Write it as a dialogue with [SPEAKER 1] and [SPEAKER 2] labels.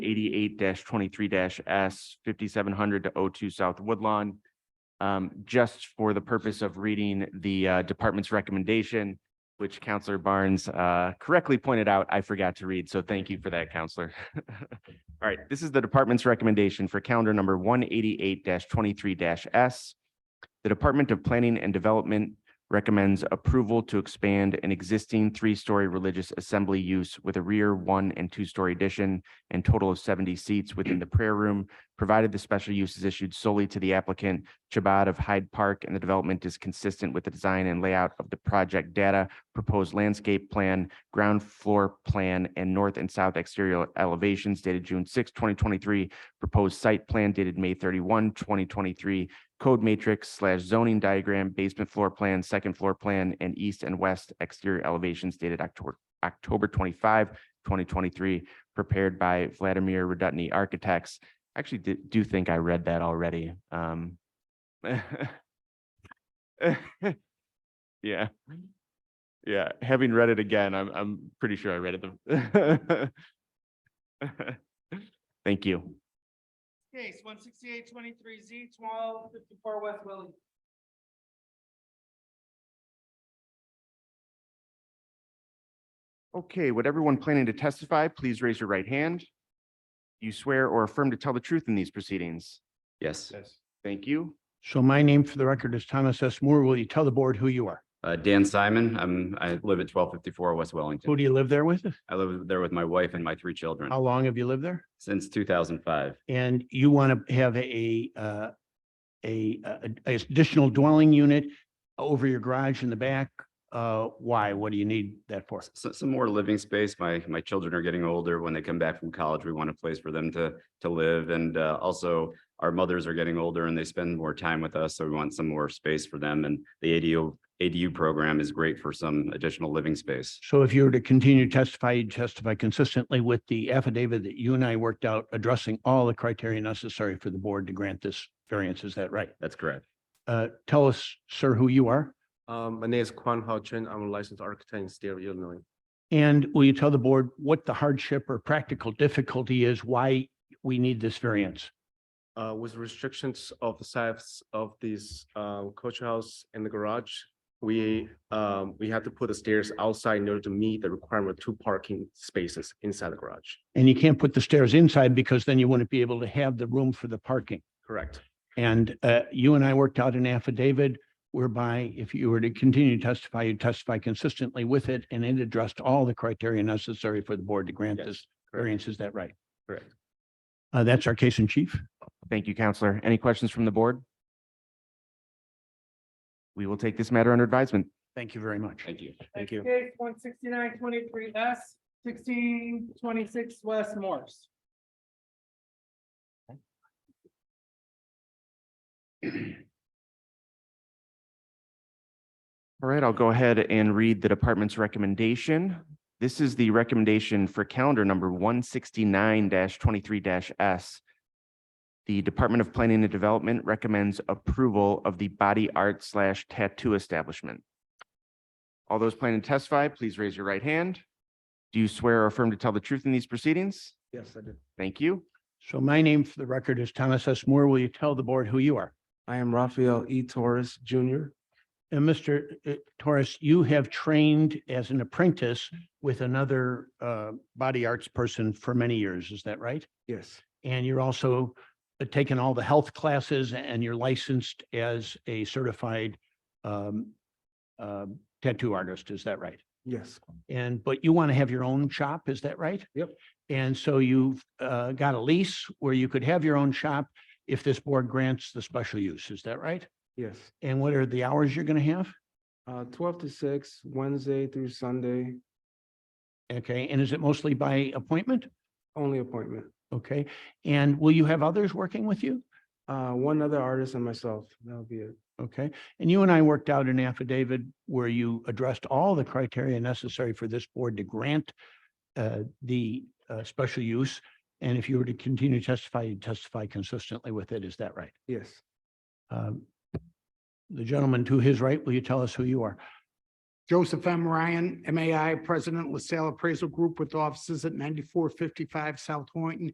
[SPEAKER 1] eighty-eight twenty-three S fifty-seven hundred to O2 South Woodlawn. Um, just for the purpose of reading the uh, department's recommendation, which Counselor Barnes uh, correctly pointed out, I forgot to read, so thank you for that, Counselor. All right, this is the department's recommendation for calendar number one eighty-eight twenty-three S. The Department of Planning and Development recommends approval to expand an existing three-story religious assembly use with a rear one and two-story addition and total of seventy seats within the prayer room, provided the special use is issued solely to the applicant Chabad of Hyde Park, and the development is consistent with the design and layout of the project data, proposed landscape plan, ground floor plan, and north and south exterior elevations dated June 6, twenty twenty-three, proposed site plan dated May 31, 2023 code matrix slash zoning diagram, basement floor plan, second floor plan, and east and west exterior elevations dated October, October 25, 2023, prepared by Vladimir Radutny Architects. I Actually, do, do think I read that already. Um. Yeah. Yeah, having read it again, I'm, I'm pretty sure I read it. the- Thank you.
[SPEAKER 2] Case one sixty-eight twenty-three Z twelve fifty-four West Willie.
[SPEAKER 1] Okay, would everyone planning to testify, please raise your right hand? You swear or affirm to tell the truth in these proceedings?
[SPEAKER 3] Yes,
[SPEAKER 2] Yes.
[SPEAKER 1] Thank you.
[SPEAKER 4] So my name for the record is Thomas S. Moore. Will you tell the board who you are?
[SPEAKER 3] uh, Dan Simon, I'm, I live at twelve fifty-four West Wellington.
[SPEAKER 4] Who do you live there with?
[SPEAKER 3] I live there with my wife and my three children
[SPEAKER 4] How long have you lived there?
[SPEAKER 3] since two thousand five.
[SPEAKER 4] And you want to have a, uh, a, a- a additional dwelling unit over your garage in the back? Uh, why? What do you need that for?
[SPEAKER 3] So, some more living space. My, my children are getting older. When they come back from college, we want a place for them to, to live. And, uh, also our mothers are getting older and they spend more time with us. So we want some more space for them. And the ADU, ADU program is great for some additional living space.
[SPEAKER 4] So if you were to continue to testify, you'd testify consistently with the affidavit that you and I worked out addressing all the criteria necessary for the board to grant this variance. Is that right?
[SPEAKER 3] That's correct.
[SPEAKER 4] Uh, tell us, sir, who you are?
[SPEAKER 5] Um, my name is Quan Hao Chen. I'm a licensed architect in state of Illinois.
[SPEAKER 4] And will you tell the board what the hardship or practical difficulty is, why we need this variance?
[SPEAKER 5] Uh, with restrictions of the size of this, um, coach house and the garage, we, um, we have to put the stairs outside in order to meet the requirement of two parking spaces inside the garage.
[SPEAKER 4] And you can't put the stairs inside because then you wouldn't be able to have the room for the parking.
[SPEAKER 5] Correct.
[SPEAKER 4] And uh, you and I worked out an affidavit whereby if you were to continue to testify, you testify consistently with it and it addressed all the criteria necessary for the board to grant
[SPEAKER 5] Yes,
[SPEAKER 4] this
[SPEAKER 5] correct.
[SPEAKER 4] variance. Is that right?
[SPEAKER 5] Correct.
[SPEAKER 4] Uh, That's our case in chief.
[SPEAKER 1] Thank you, Counselor. Any questions from the board? We will take this matter under advisement.
[SPEAKER 4] Thank you very much.
[SPEAKER 3] Thank you.
[SPEAKER 5] Thank you.
[SPEAKER 2] Case one sixty-nine twenty-three S sixteen twenty-six West Morse.
[SPEAKER 1] All right, I'll go ahead and read the department's recommendation. This is the recommendation for calendar number one sixty-nine twenty-three S. The Department of Planning and Development recommends approval of the body art slash tattoo establishment. All those planning to testify, please raise your right hand. Do you swear or affirm to tell the truth in these proceedings?
[SPEAKER 5] Yes, I did.
[SPEAKER 1] Thank you.
[SPEAKER 4] So my name for the record is Thomas S. Moore. Will you tell the board who you are?
[SPEAKER 5] I am Raphael E. Torres Jr.
[SPEAKER 4] And Mr. uh, Torres, you have trained as an apprentice with another uh, body arts person for many years, is that right?
[SPEAKER 5] Yes,
[SPEAKER 4] And you're also uh, taken all the health classes and you're licensed as a certified um, uh, tattoo artist, is that right?
[SPEAKER 5] yes,
[SPEAKER 4] And, but you want to have your own shop, is that right?
[SPEAKER 5] Yep.
[SPEAKER 4] And so you've uh, got a lease where you could have your own shop if this board grants the special use, is that right?
[SPEAKER 5] yes.
[SPEAKER 4] And what are the hours you're going to have?
[SPEAKER 5] Uh, twelve to six, Wednesday through Sunday,
[SPEAKER 4] Okay, and is it mostly by appointment?
[SPEAKER 5] only appointment.
[SPEAKER 4] Okay, and will you have others working with you?
[SPEAKER 5] Uh, one other artist and myself. That'll be it.
[SPEAKER 4] Okay, and you and I worked out an affidavit where you addressed all the criteria necessary for this board to grant uh, the uh, special use. And if you were to continue to testify, you testify consistently with it, is that right?
[SPEAKER 5] Yes.
[SPEAKER 4] Um, The gentleman to his right, will you tell us who you are?
[SPEAKER 6] Joseph M. Ryan, MAI, President LaSalle Appraisal Group with offices at ninety-four fifty-five South Horton